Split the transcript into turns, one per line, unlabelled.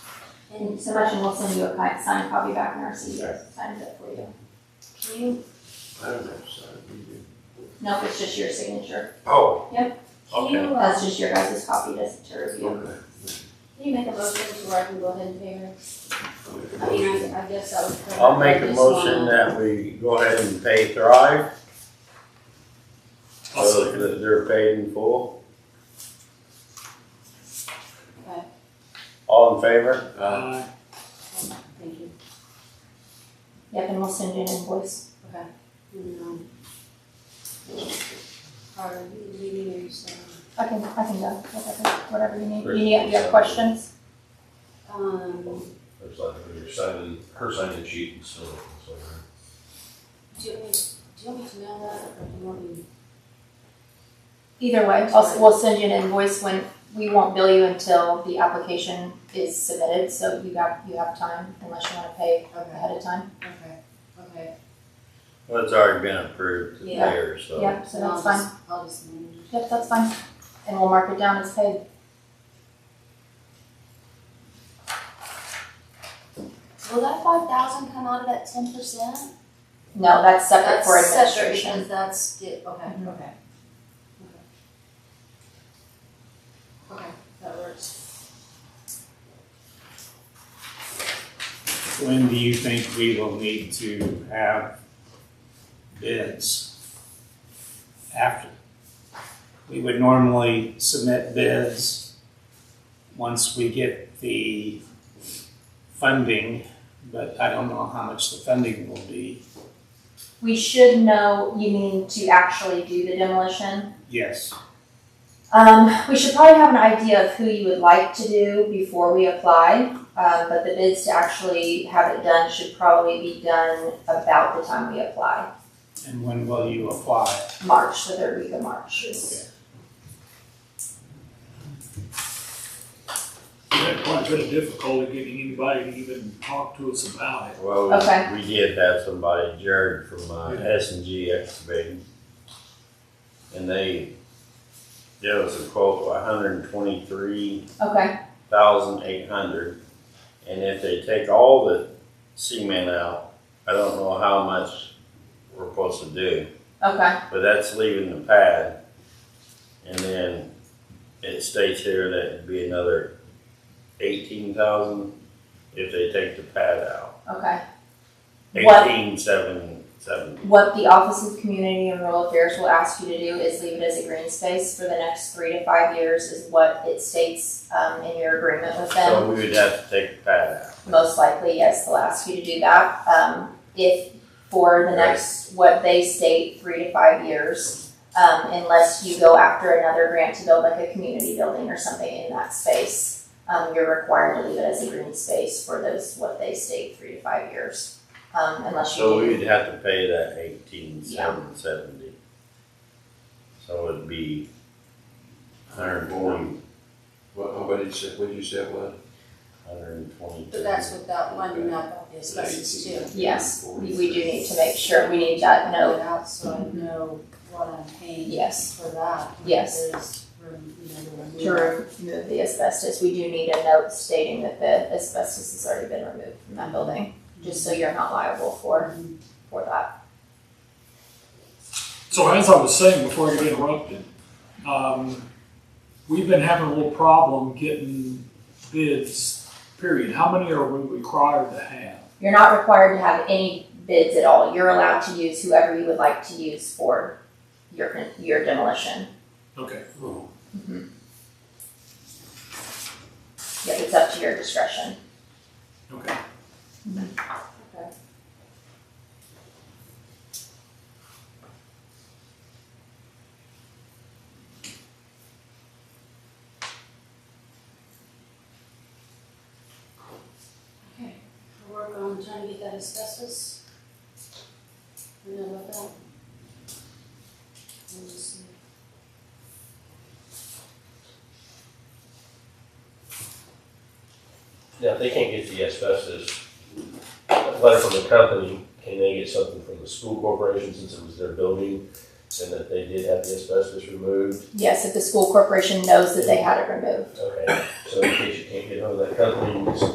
And Sebastian will send you a ki- signed copy back in our seat, signed it for you. Can you,
I don't know, sorry, we do.
no, it's just your signature,
Oh,
Can
Okay.
you, uh,
that's just your guys' copy to, to review.
okay.
can you make a motion to where I can go ahead and pay her?
I'll make
I
a
mean,
motion.
I, I guess that would.
I'll make a motion that we go ahead and pay Thrive,
I'll
so
second.
that they're paid in full.
Okay.
All in favor?
Uh,
Thank you.
Yep, and we'll send you an invoice.
And, um, Or you you need to, use,
I can, I can go, whatever, whatever you need.
Great.
You need, you have questions?
um, um,
There's like, you're signing, her signing sheet and so, so.
do you want me, do you want me to mail that or do you want me?
Either way, I'll, we'll send you an invoice when, we won't bill you until the application is submitted, so you got, you have time unless you wanna pay
Okay,
ahead of time.
okay, okay.
Well, it's already been approved to
Yeah.
there, so.
Yep, so
Then I'll
that's fine.
just- I'll just manage. it.
Yep, that's fine. And we'll mark it down as paid.
Will that five thousand come out of that ten percent?
No, that's separate for administration.
Because that's, di- okay,
Mhm.
okay. Okay, Okay, that works.
When do you think we will need to have bids after? We would normally submit bids once we get the funding, but I don't know how much the funding will be.
We should know, you mean to actually do the demolition?
Yes,
Um, we should probably have an idea of who you would like to do before we apply. Um, but the bids to actually have it done should probably be done about the time we apply,
and when will you apply?
March, the third week of March.
had quite a bit of difficulty getting anybody to even talk to us about it.
Well,
Okay.
we- we did have somebody, Jared from uh,
Yeah.
S and G excavating. And they, there was a quote of hundred and twenty-three
Okay,
thousand eight hundred. And if they take all the cement out, I don't know how much we're supposed to do,
okay,
but that's leaving the pad. And then it states here that it'd be another eighteen thousand if they take the pad out.
okay. What-
Eighteen seven seven.
What the Office of Community and Rural Affairs will ask you to do is leave it as a green space for the next three to five years is what it states, um, in your agreement with them.
So we would have to take the pad out.
most likely, yes, they'll ask you to do that. Um, if for the
Right.
next, what they state, three to five years, um, unless you go after another grant to build like a community building or something in that space, um, you're required to leave it as a green space for those, what they state, three to five years. Um, unless you
So
do,
we'd have to pay that eighteen seven seventy. So it'd be hundred and forty,
What, what did you say, what did you say, what?
hundred and twenty.
But that's without lining up the asbestos too.
yes, we, we do need to make sure, we need that
Fill
note,
it out so I know what I'm paying
yes.
for that. and if
Yes.
There's room, you know, to remove.
To remove the asbestos, we do need a note stating that the asbestos has already been removed from that building, just so you're not liable for, for that.
So as I was saying before you interrupted, um, we've been having a little problem getting bids, period. How many are we required to have?
You're not required to have any bids at all, you're allowed to use whoever you would like to use for your, your demolition.
Okay.
Yep, it's up to your discretion.
Okay.
Okay. Okay, we'll work on trying to get that asbestos. We know about that. We'll just see.
Now, if they can't get the asbestos, a letter from the company, can they get something from the school corporation since it was their building? And that they did have the asbestos removed?
Yes, if the school corporation knows that they had it removed.
Okay, so in case you can't get hold of that company, you can